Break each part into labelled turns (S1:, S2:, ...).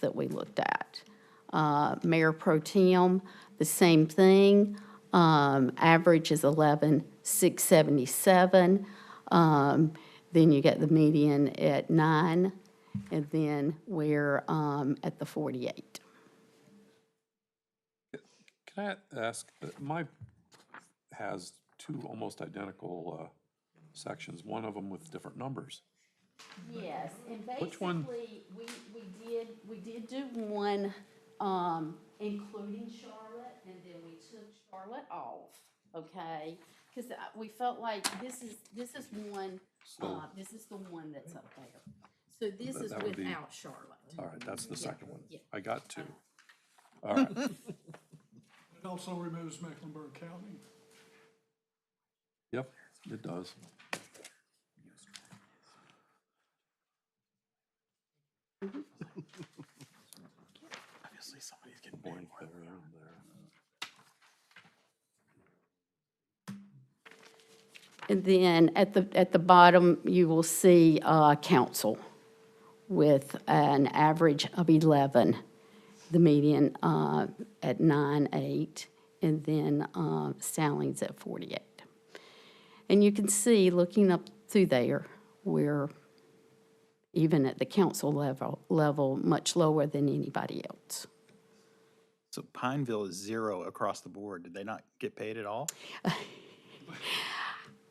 S1: that we looked at. Uh, Mayor Pro Tem, the same thing. Um, Average is 11,677. Um, Then you get the median at 9, and then we're um, at the 48.
S2: Can I ask, uh, my has two almost identical uh, sections, one of them with different numbers.
S1: Yes, and
S2: Which one?
S1: basically, we, we did, we did do one, um, including Charlotte, and then we took Charlotte off, okay? Because we felt like this is, this is one, uh,
S2: So-
S1: this is the one that's up there. So this
S2: That-
S1: is
S2: that would be-
S1: without Charlotte.
S2: All right, that's the second one.
S1: yeah.
S2: I got two. All right,
S3: It also removes Mecklenburg County.
S2: yep, it does. Obviously, somebody's getting bored there and there.
S1: And then at the, at the bottom, you will see, uh, council with an average of 11, the median, uh, at 9.8, and then, uh, Stallings at 48. And you can see, looking up through there, we're even at the council level, level, much lower than anybody else.
S4: So Pineville is zero across the board. Did they not get paid at all?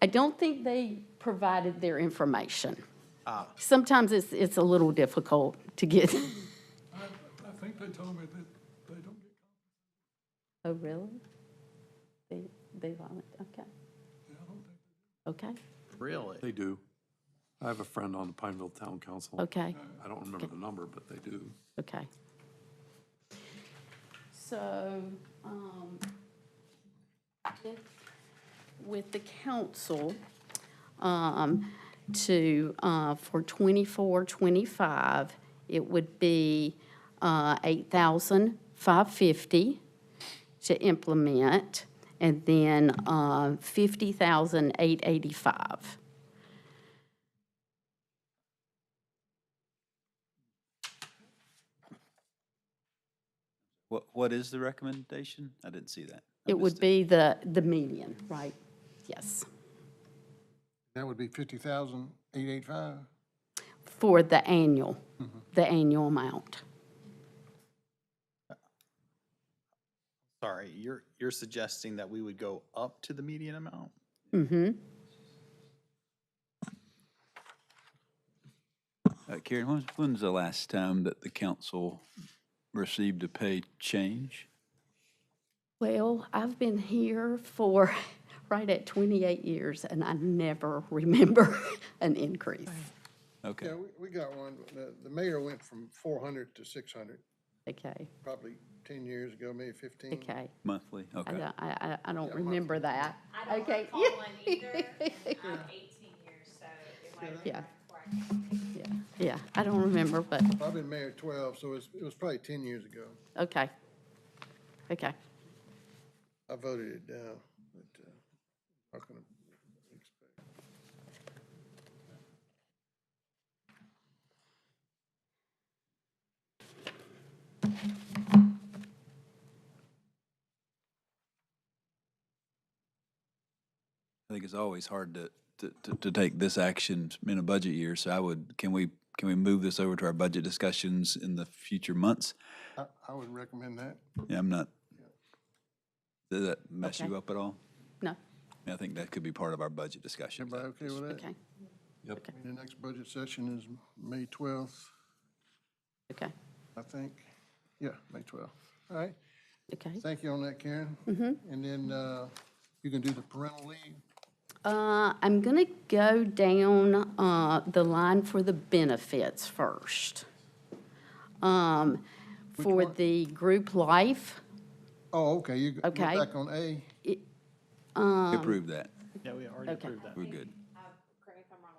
S1: I don't think they provided their information. Sometimes it's, it's a little difficult to get.
S3: I, I think they told me that they don't get
S1: Oh, really? They, they vomit, okay. Okay,
S4: Really?
S2: They do. I have a friend on the Pineville Town Council.
S1: okay,
S2: I don't remember the number, but they do.
S1: okay. So, um, with- with the council, um, to, uh, for twenty-four, twenty-five, it would be, uh, eight thousand five fifty to implement, and then, uh, fifty thousand eight eighty-five.
S4: What, what is the recommendation? I didn't see that. I
S1: It would
S4: missed
S1: be the, the median, right? Yes,
S5: That would be fifty thousand, eight eight five.
S1: for the annual, the annual amount.
S4: Sorry, you're, you're suggesting that we would go up to the median amount?
S1: Mm-hmm.
S6: Uh, Karen, when's, when's the last time that the council received a pay change?
S1: Well, I've been here for right at 28 years, and I never remember an increase.
S6: Okay,
S5: Yeah, we, we got one. The, the mayor went from four hundred to six hundred,
S1: Okay,
S5: probably ten years ago, maybe fifteen.
S1: okay.
S6: monthly,
S1: I
S6: okay.
S1: don't, I, I I don't remember that.
S7: I don't
S1: Okay.
S7: recall one either. I'm 18 years, so it might have been
S1: Yeah.
S7: right before I came.
S1: Yeah, Yeah, I don't remember, but,
S5: I've been mayor twelve, so it's, it was probably ten years ago.
S1: okay. Okay,
S5: I voted it down, but, uh, not gonna expect.
S6: I think it's always hard to, to- to, to take this action in a budget year, so I would, can we, can we move this over to our budget discussions in the future months?
S5: I, I would recommend that.
S6: Yeah, I'm not, does that mess
S1: Okay.
S6: you up at all?
S1: no,
S6: I think that could be part of our budget discussion.
S5: Everybody okay with that?
S1: okay,
S5: I mean, The next budget session is May twelfth,
S1: okay,
S5: I think. Yeah, May twelfth. All right.
S1: okay.
S5: Thank you on that, Karen. And then, uh, you can do the parental leave.
S1: Uh, I'm going to go down uh, the line for the benefits first. Um, For
S5: one?
S1: the group life,
S5: Oh, okay, you, you're
S1: Okay.
S5: back on A.
S6: We Approve that,
S4: Yeah, we already approved that.
S6: we're good.
S7: Uh, Correct me if I'm wrong,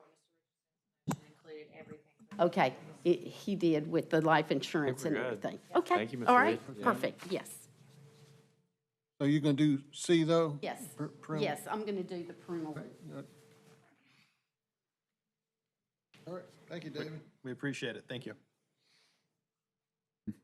S7: when Mr. Richardson included everything.
S1: okay, it- he did with the life insurance and everything. Okay.
S8: Thank you, Ms.
S1: All right,
S8: Reed.
S1: perfect, yes,
S5: So you're gonna do C though?
S1: yes.
S5: Per- parental?
S1: Yes, I'm going to do the parental.
S5: All right, thank you, David.
S4: We appreciate it. Thank you.